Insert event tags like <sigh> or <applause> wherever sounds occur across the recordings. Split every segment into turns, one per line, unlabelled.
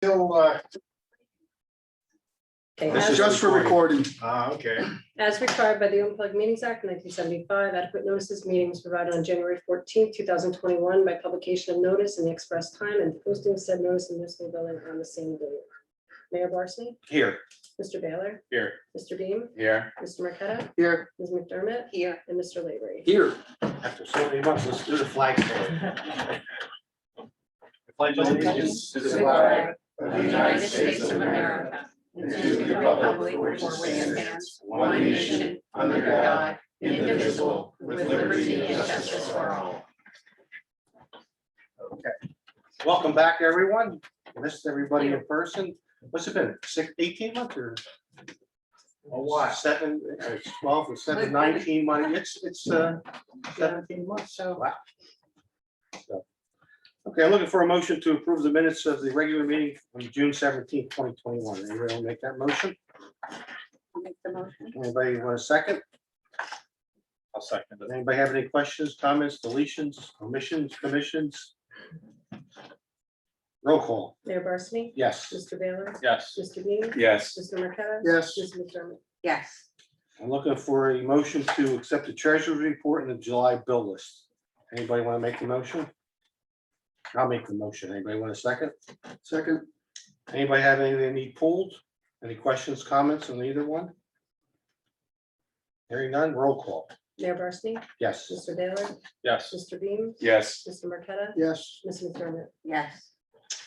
still, uh,
Okay,
this is
as-
just for recording. Ah, okay.
As required by the Unplugged Meetings Act nineteen seventy-five, adequate notices meeting was provided on January fourteenth, two thousand twenty-one by publication of notice in the express time and posting of said notice in municipal building on the same day. Mayor Barsney?
Here.
Mr. Baylor?
Here.
Mr. Beam?
Here.
Mr. Marqueta?
Here.
Ms. McDermott?
Here.
And Mr. Lavery?
Here.
After so many months, let's do the flag. stand. Pledge allegiance to the flag
of
The United States of America. And to the republic which stands, one nation, under God, indivisible, with liberty and justice for all.
Welcome back, everyone. Missed everybody in person. What's it been, six, eighteen months or? A while. Seven, uh, twelve, or seven, nineteen months. It's, it's, uh, seventeen months, so. Wow. So, Okay, I'm looking for a motion to approve the minutes of the regular meeting on June seventeenth, twenty twenty-one. Anybody will make that motion?
I'll Make the motion.
Anybody want a second?
I'll second it.
Anybody have any questions, comments, deletions, omissions, commissions? Roll call,
Mayor Barsney?
yes.
Mr. Baylor?
Yes.
Mr. Beam?
Yes.
Mr. Marqueta?
Yes.
Ms. McDermott?
Yes,
I'm looking for a motion to accept the treasurer's report and the July bill list. Anybody want to make the motion? I'll make the motion. Anybody want a second? Second. Anybody have any they need pulled? Any questions, comments on either one? Hearing none, roll call,
Mayor Barsney?
yes.
Mr. Baylor?
Yes.
Mr. Beam?
Yes.
Mr. Marqueta?
Yes.
Ms. McDermott?
yes,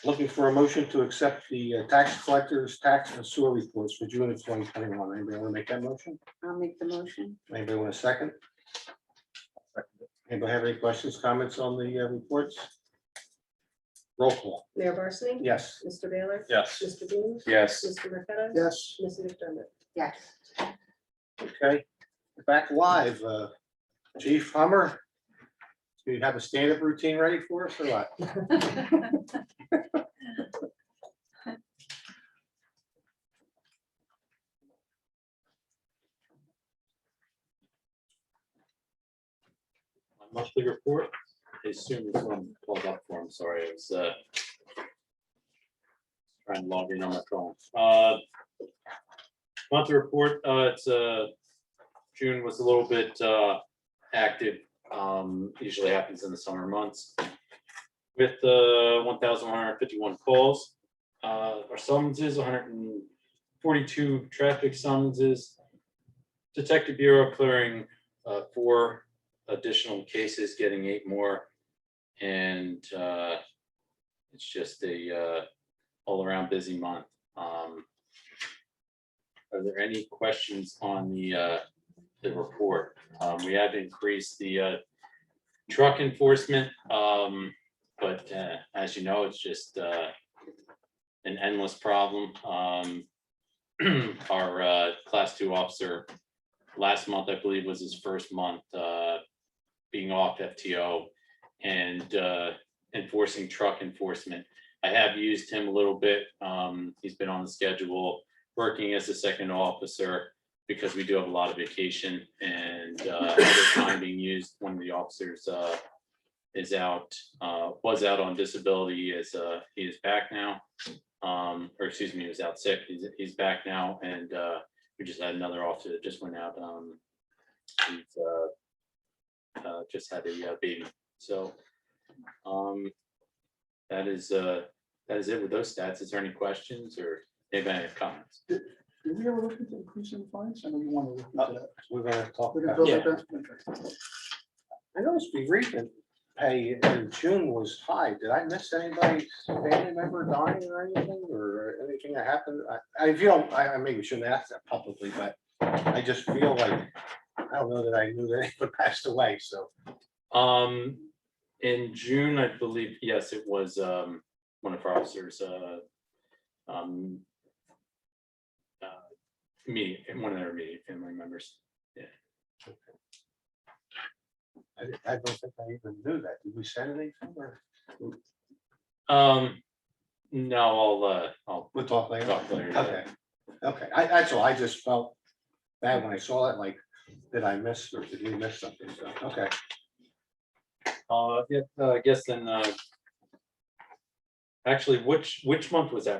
Looking for a motion to accept the uh, tax collectors, tax and sewer reports for June of twenty twenty-one. Anybody want to make that motion?
I'll make the motion.
Anybody want a second? Anybody have any questions, comments on the uh, reports? Roll call,
Mayor Barsney?
yes.
Mr. Baylor?
Yes.
Mr. Beam?
Yes.
Mr. Marqueta?
Yes.
Ms. McDermott?
Yes,
Okay, back live, uh, Chief Hummer. Do you have a stand-up routine ready for us or what?
my monthly report is soon as I'm pulled up for, I'm sorry, I was uh. Trying to log in on my phone. Uh. Monthly report, uh, it's uh, June was a little bit uh active, um, usually happens in the summer months. With uh one thousand one hundred fifty-one calls, uh, or summonses, hundred and forty-two traffic summonses. Detective Bureau clearing uh four additional cases, getting eight more. And uh, it's just a uh, all around busy month. Um, Are there any questions on the uh, the report? Um, We have increased the uh, truck enforcement. um, But uh, as you know, it's just uh, an endless problem. Um, <clears throat> Our uh, class two officer last month, I believe, was his first month uh, being off FTO and uh, enforcing truck enforcement. I have used him a little bit. Um, He's been on the schedule, working as a second officer because we do have a lot of vacation and uh, other time being used. One of the officers uh, is out, uh, was out on disability as uh, he is back now. Um, Or excuse me, he was out sick. He's, he's back now and uh, we just had another officer that just went out. um, he's, uh, uh, just had a uh, baby, so. Um, that is, uh, that is it with those stats. Is there any questions or anybody have comments?
Did we ever look into increasing fines? I know you want to look
into We're gonna talk
We're gonna build
about,
Yeah.
that.
I noticed we read that pay in June was high. Did I miss anybody, family member dying or anything or anything that happened? I, I feel, I, I maybe shouldn't ask that publicly, but I just feel like, I don't know that I knew that <laughs> anyone passed away, so.
Um, in June, I believe, yes, it was, um, one of our officers, uh, um, uh, immediate, one of their immediate family members.
I, didn't- I don't think I even knew that. Did we send anything or?
Um, no, I'll, uh, I'll
We'll talk later.
talk later.
Okay, okay. I, that's all. I just felt bad when I saw that, like, did I miss or did we miss something? So, okay.
Uh, yeah, uh, I guess then, uh. Actually, which, which month was that